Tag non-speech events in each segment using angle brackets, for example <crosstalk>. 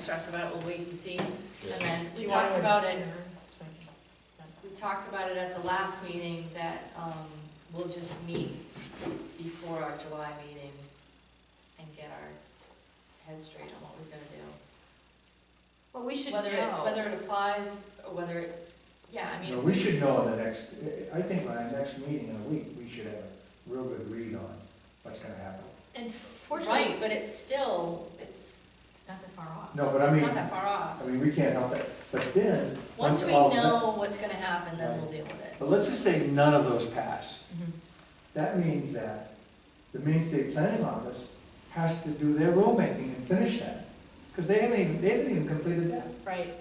stress about it, we'll wait to see. And then, You we wanna talked about it, adjourn? we talked about it at the last meeting, that, um, we'll just meet before our July meeting and get our head straight on what we're gonna do. Well, we should Whether it, know. whether it applies, or whether it, yeah, I You know, mean, we should know in the next, I think by the next meeting in a week, we should have a real good read on what's gonna happen. And fortunately, right, but it's still, it's, it's not that far off. No, but I it's mean, not that far off. I mean, we can't help it, but then, Once once we all. know what's gonna happen, then we'll deal with it. But let's just say none of those pass. Mhm. That means that the Main State Planning Office has to do their rulemaking and finish that, because they haven't even, they haven't even completed that. Right,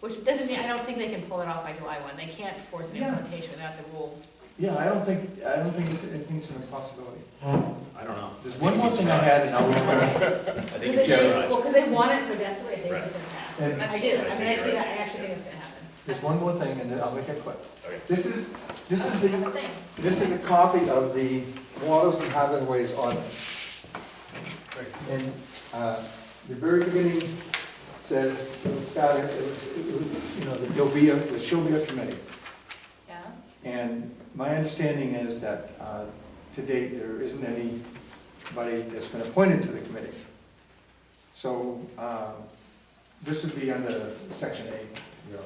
which doesn't mean, I don't think they can pull it off by July one, they can't force an Yeah. implementation without the <laughs> rules. Yeah, I don't think, I don't think it's, I think it's an impossibility. I don't know. There's one more thing I had, and I'll, remember. I think Because it's they, generalized. well, because they want it so desperately, I think Right. it's gonna pass. And- I I've do, seen I mean, I this. see I see, that, I right. actually think it's gonna happen. there's one more thing, and then I'll make it quick. Okay. This is, this is the, That's the thing. this is a copy of the Waters and Highways ordinance. And, uh, the very beginning says, it'll start, it was, it was, you know, that there'll be a, there shall be a committee. Yeah, And my understanding is that, uh, to date, there isn't anybody that's been appointed to the committee. So, um, this would be under section eight, you know,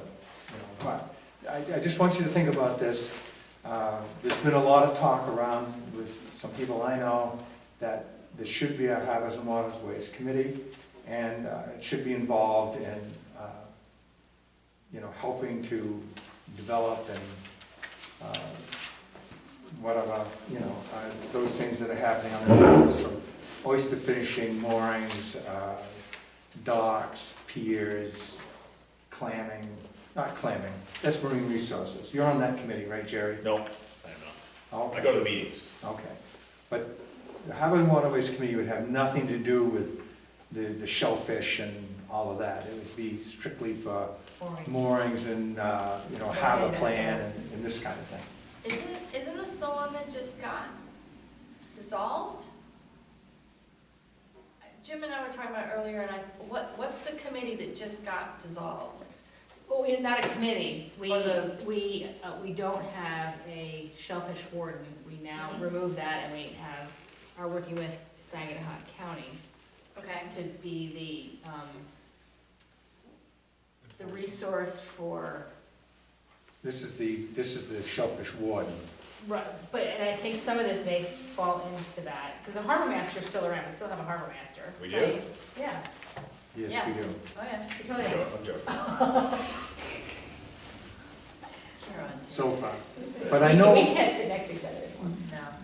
you know, but I, I just want you to think about this. Uh, there's been a lot of talk around with some people I know that there should be a Harbors and Waters Waste Committee, and, uh, it should be involved in, uh, you know, helping to develop and uh, whatever, you know, uh, those things that are happening on the docks, from oyster fishing, moorings, uh, docks, piers, clamming, not clamming, that's marine resources. You're on that committee, right, Jerry? No, I don't know. I Okay, go to the meetings. okay. But the Harbor and Waterways Committee would have nothing to do with the the shellfish and all of that. It would be strictly for Boring. moorings and, uh, you know, harbor plan and- and this kind of thing. Isn't, isn't this the one that just got dissolved? Jim and I were talking about earlier, and I, what, what's the committee that just got dissolved? Well, we're not a committee, we, Or the- we, uh, we don't have a shellfish warden, we now Mhm. remove that and we have, are working with Saginaw County Okay, to be the, um, the resource for This is the, this is the shellfish warden. Right, but, and I think some of this may fall into that, because the harbor master's still around, we still have a harbor master. We right? do? Yeah, Yes, we do. oh yeah, we totally I'm do. joking, I'm joking. Karen. So far. But I We know, can't sit next to each other anymore.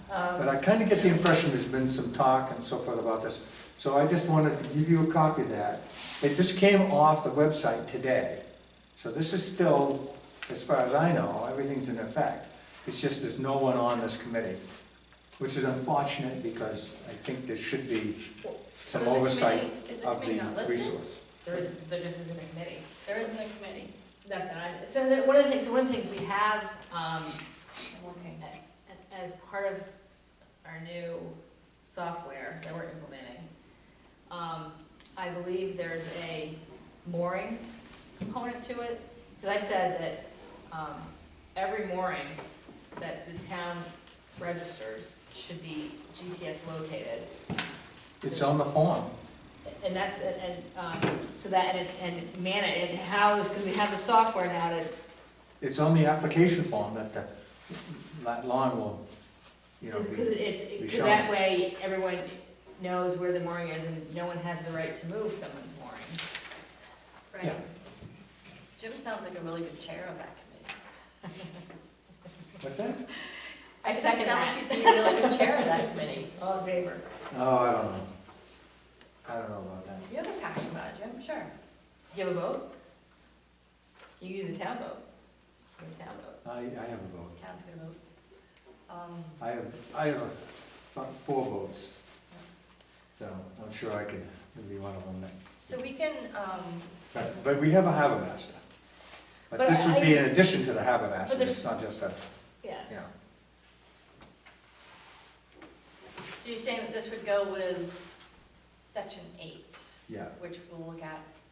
No, Um, but I kind of get the impression there's been some talk and so forth about this. So I just wanted to give you a copy of that. It just came off the website today. So this is still, as far as I know, everything's in effect. It's just there's no one on this committee, which is unfortunate because I think there should be So some is the oversight committee- Is the of committee the not listed? resource. There is, there just isn't a committee. There isn't a committee. Not that I, so the- one of the things, so one of the things we have, um, working. a- as part of our new software that we're implementing, um, I believe there's a mooring component to it. Because I said that um, every mooring that the town registers should be GPS located. It's on the form. And that's, and, um, so that, and it's, and man, and how is, because we have the software now to It's on the application form that the, that line will, you know, Because be. it's, we because shall. that way, everyone knows where the mooring is, and no one has the right to move someone's mooring. Right. Jim sounds like a really good chair of that committee. What's that? I said second You sound that. like you'd be a really good chair of that committee. All in favor? Oh, I don't know. I don't know about that. You have a passion about it, Jim, sure. Do you have a boat? You use a town boat. You have a town boat. I, I have a vote. Town's gonna move. Um, I have, I have a- f- four votes. So I'm sure I could be one of them. that- So we can, um, But, but we have a harbor master. But But this I- would be in addition to the harbor master, there's- it's not just a, yeah. Yes. So you're saying that this would go with section eight, Yeah, which we'll look at